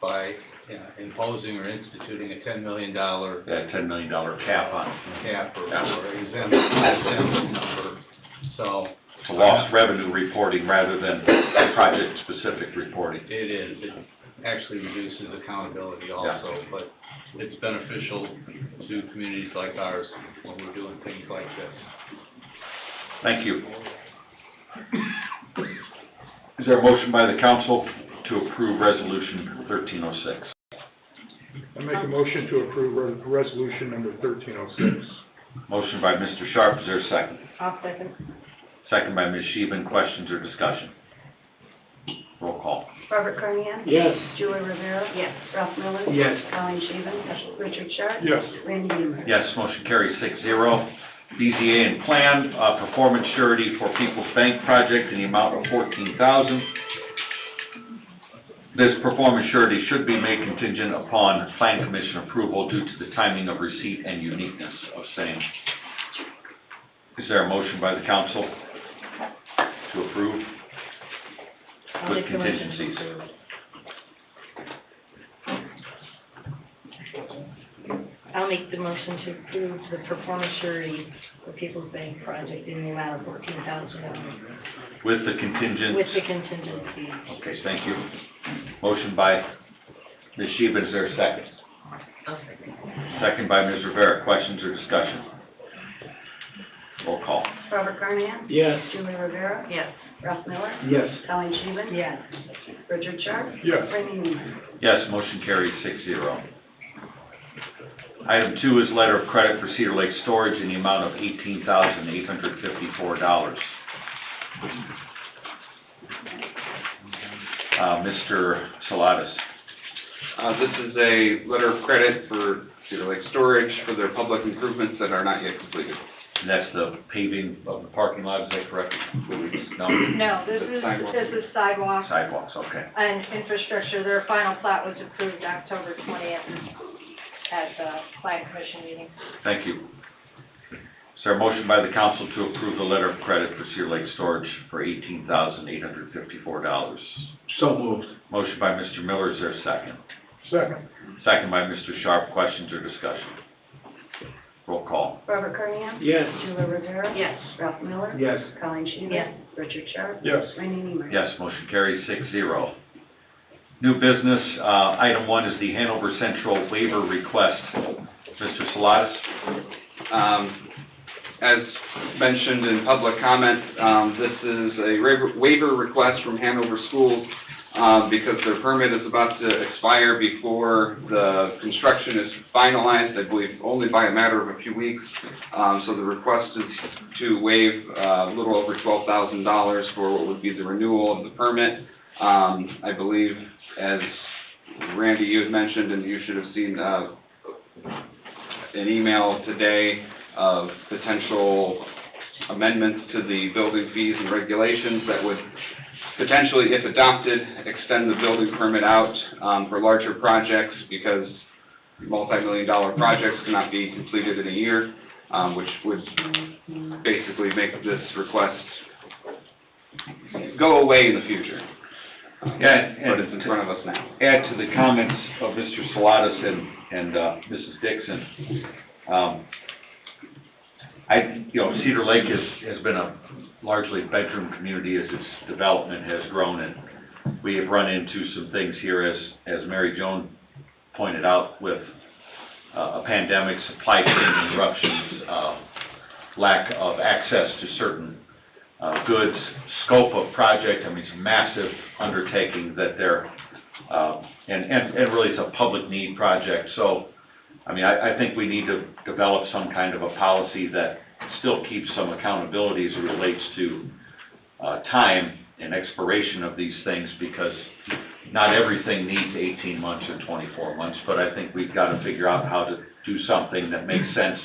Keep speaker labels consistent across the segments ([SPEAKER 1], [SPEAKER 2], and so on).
[SPEAKER 1] by you know, imposing or instituting a ten million dollar
[SPEAKER 2] that ten million dollar cap on it.
[SPEAKER 1] cap or
[SPEAKER 2] Yeah.
[SPEAKER 1] or exempt, exempt number, so
[SPEAKER 2] It's a lost revenue reporting rather than project-specific reporting.
[SPEAKER 1] it is, it actually reduces accountability also, but it's beneficial to communities like ours when we're doing things like this.
[SPEAKER 2] Thank you. Is there a motion by the council to approve resolution thirteen oh six?
[SPEAKER 3] I make a motion to approve re- resolution number thirteen oh six.
[SPEAKER 2] Motion by Mr. Sharp, is there a second?
[SPEAKER 4] I'll second.
[SPEAKER 2] Second by Ms. Sheehan, questions or discussion? Roll call.
[SPEAKER 5] Robert Carnahan?
[SPEAKER 3] Yes.
[SPEAKER 5] Julie Rivera? Yes. Ralph Miller?
[SPEAKER 3] Yes.
[SPEAKER 5] Alan Sheehan? Yes. Richard Sharp?
[SPEAKER 3] Yes.
[SPEAKER 5] Randy Neiman?
[SPEAKER 2] Yes, motion carries six zero. BZA and plan, uh, performance surety for People's Bank project in the amount of fourteen thousand. This performance surety should be made contingent upon plan commission approval due to the timing of receipt and uniqueness of same. Is there a motion by the council to approve?
[SPEAKER 4] I'll
[SPEAKER 2] With
[SPEAKER 4] make the motion.
[SPEAKER 2] contingencies.
[SPEAKER 4] I'll make the motion to approve the performance surety for People's Bank project in the amount of fourteen thousand dollars
[SPEAKER 2] With the contingent?
[SPEAKER 4] with the contingency.
[SPEAKER 2] Okay, thank you. Motion by Ms. Sheba, is there a second?
[SPEAKER 4] I'll second.
[SPEAKER 2] Second by Ms. Rivera, questions or discussion? Roll call.
[SPEAKER 5] Robert Carnahan?
[SPEAKER 3] Yes.
[SPEAKER 5] Julie Rivera?
[SPEAKER 4] Yes.
[SPEAKER 5] Ralph Miller?
[SPEAKER 3] Yes.
[SPEAKER 5] Alan Sheehan?
[SPEAKER 4] Yes.
[SPEAKER 5] Richard Sharp?
[SPEAKER 3] Yes.
[SPEAKER 5] Randy Neiman?
[SPEAKER 2] Yes, motion carries six zero. Item two is letter of credit for Cedar Lake Storage in the amount of eighteen thousand eight hundred fifty-four dollars. Uh, Mr. Salatas,
[SPEAKER 6] Uh, this is a letter of credit for Cedar Lake Storage for their public improvements that are not yet completed.
[SPEAKER 2] that's the paving of the parking lot, is that correct? No,
[SPEAKER 7] No, this
[SPEAKER 6] The
[SPEAKER 7] is,
[SPEAKER 6] sidewalk.
[SPEAKER 7] this is sidewalk
[SPEAKER 2] sidewalks, okay.
[SPEAKER 7] and infrastructure. Their final plat was approved October twentieth at the plan commission meeting.
[SPEAKER 2] Thank you. Is there a motion by the council to approve the letter of credit for Cedar Lake Storage for eighteen thousand eight hundred fifty-four dollars?
[SPEAKER 3] So moved.
[SPEAKER 2] Motion by Mr. Miller, is there a second?
[SPEAKER 3] Second.
[SPEAKER 2] Second by Mr. Sharp, questions or discussion? Roll call.
[SPEAKER 5] Robert Carnahan?
[SPEAKER 3] Yes.
[SPEAKER 5] Julie Rivera?
[SPEAKER 4] Yes.
[SPEAKER 5] Ralph Miller?
[SPEAKER 3] Yes.
[SPEAKER 5] Alan Sheehan?
[SPEAKER 4] Yes.
[SPEAKER 5] Richard Sharp?
[SPEAKER 3] Yes.
[SPEAKER 5] Randy Neiman?
[SPEAKER 2] Yes, motion carries six zero. New business, uh, item one is the Hanover Central waiver request. Mr. Salatas?
[SPEAKER 6] Um, as mentioned in public comment, um, this is a waiver- waiver request from Hanover Schools, uh, because their permit is about to expire before the construction is finalized, I believe, only by a matter of a few weeks. Um, so the request is to waive, uh, a little over twelve thousand dollars for what would be the renewal of the permit. Um, I believe, as Randy, you had mentioned, and you should have seen, uh, an email today of potential amendments to the building fees and regulations that would potentially, if adopted, extend the building permit out um, for larger projects because multi-million dollar projects cannot be completed in a year, um, which would basically make this request go away in the future.
[SPEAKER 2] Yeah,
[SPEAKER 6] But it's in front of us now.
[SPEAKER 2] add to the comments of Mr. Salatas and, and, uh, Mrs. Dixon. Um, I, you know, Cedar Lake has, has been a largely bedroom community as its development has grown, and we have run into some things here as, as Mary Joan pointed out with, uh, a pandemic, supply chain disruptions, uh, lack of access to certain, uh, goods, scope of project, I mean, it's a massive undertaking that they're um, and, and, and really it's a public need project, so, I mean, I, I think we need to develop some kind of a policy that still keeps some accountability as it relates to, uh, time and expiration of these things, because not everything needs eighteen months or twenty-four months, but I think we've gotta figure out how to do something that makes sense,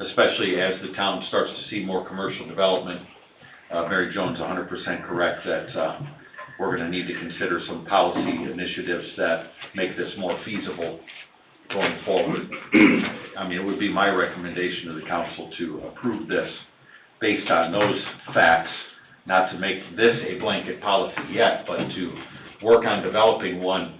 [SPEAKER 2] especially as the town starts to see more commercial development. Uh, Mary Jones hundred percent correct that, uh, we're gonna need to consider some policy initiatives that make this more feasible going forward. I mean, it would be my recommendation to the council to approve this based on those facts, not to make this a blanket policy yet, but to work on developing one